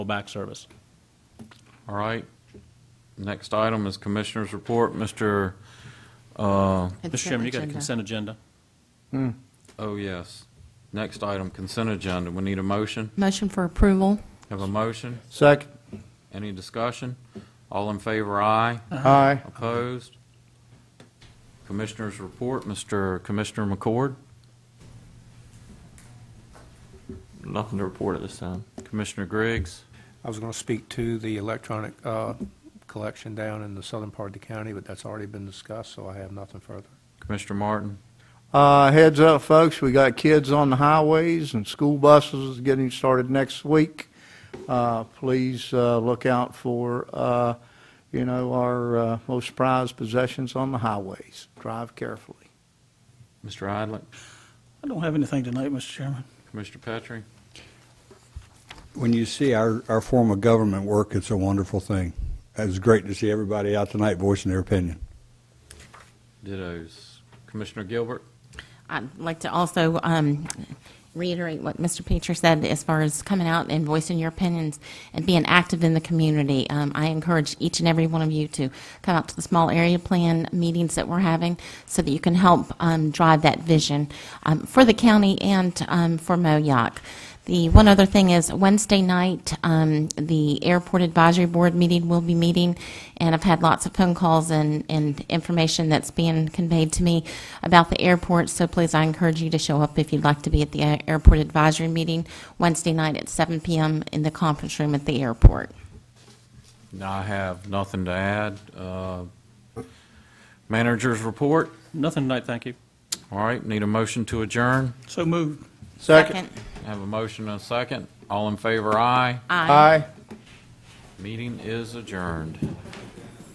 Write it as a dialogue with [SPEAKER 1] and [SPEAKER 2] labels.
[SPEAKER 1] back service.
[SPEAKER 2] All right. Next item is Commissioner's Report. Mr., uh,
[SPEAKER 1] Mr. Chairman, you got a consent agenda.
[SPEAKER 2] oh, yes. Next item, consent agenda. We need a motion.
[SPEAKER 3] Motion for approval.
[SPEAKER 2] Have a motion?
[SPEAKER 4] Second.
[SPEAKER 2] Any discussion? All in favor, aye.
[SPEAKER 4] Aye.
[SPEAKER 2] Opposed? Commissioner's Report, Mr. Commissioner McCord.
[SPEAKER 5] Nothing to report at this time.
[SPEAKER 2] Commissioner Griggs.
[SPEAKER 6] I was going to speak to the electronic uh, collection down in the southern part of the county, but that's already been discussed, so I have nothing further.
[SPEAKER 2] Commissioner Martin.
[SPEAKER 4] Uh, heads up, folks, we got kids on the highways and school buses getting started next week. Uh, please, uh, look out for, uh, you know, our, uh, most prized possessions on the highways. Drive carefully.
[SPEAKER 2] Mr. Idlet.
[SPEAKER 7] I don't have anything tonight, Mr. Chairman.
[SPEAKER 2] Commissioner Petrie.
[SPEAKER 8] when you see our, our form of government work, it's a wonderful thing. It was great to see everybody out tonight voicing their opinion.
[SPEAKER 2] Dittos. Commissioner Gilbert.
[SPEAKER 3] I'd like to also um, reiterate what Mr. Peter said as far as coming out and voicing your opinions and being active in the community. Um, I encourage each and every one of you to come out to the small area plan meetings that we're having so that you can help um, drive that vision um, for the county and um, for MOYOC. The one other thing is Wednesday night, um, the Airport Advisory Board meeting will be meeting, and I've had lots of phone calls and, and information that's being conveyed to me about the airport, so please, I encourage you to show up if you'd like to be at the uh, Airport Advisory Meeting Wednesday night at 7 PM in the conference room at the airport.
[SPEAKER 2] I have nothing to add. Uh, Manager's Report.
[SPEAKER 1] Nothing tonight, thank you.
[SPEAKER 2] All right, need a motion to adjourn.
[SPEAKER 7] So moved.
[SPEAKER 2] Have a motion and a second. All in favor, aye.
[SPEAKER 3] Aye.
[SPEAKER 4] Aye.
[SPEAKER 2] Meeting is adjourned.